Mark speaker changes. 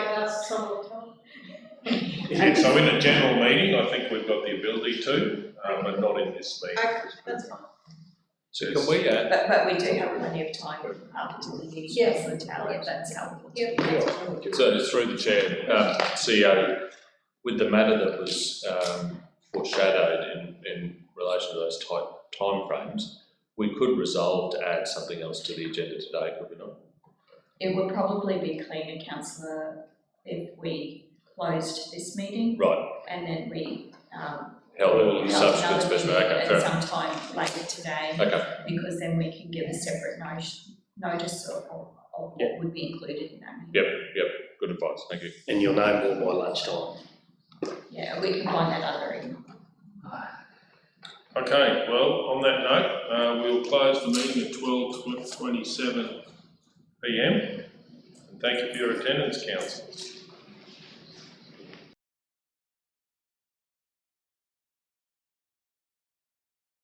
Speaker 1: ask someone to tell me.
Speaker 2: Yeah, So in a general meeting, I think we've got the ability to, uh, but not in this meeting.
Speaker 1: Okay, that's fine.
Speaker 3: So can we, uh,
Speaker 4: But, but we do have plenty of time after the meeting,
Speaker 1: Yes.
Speaker 4: so tell if that's helpful.
Speaker 1: Yeah.
Speaker 3: so through the chair, um, CEO, with the matter that was, um, foreshadowed in, in relation to those ti- timeframes, we could resolve to add something else to the agenda today, could we not?
Speaker 4: It would probably be cleaner, councillor, if we closed this meeting
Speaker 3: Right,
Speaker 4: and then we, um,
Speaker 3: held a
Speaker 4: held another
Speaker 3: subsequent special,
Speaker 4: meeting
Speaker 3: okay, fair
Speaker 4: at some
Speaker 3: enough,
Speaker 4: time later today,
Speaker 3: okay,
Speaker 4: because then we can give a separate notice, notice of, of of what would be included in that meeting.
Speaker 3: good advice, thank you.
Speaker 5: And you'll know more by lunchtime.
Speaker 4: Yeah, we can find that other email.
Speaker 2: Okay, well, on that note, uh, we'll close the meeting at twelve twenty-seven PM. And thank you for your attendance, council.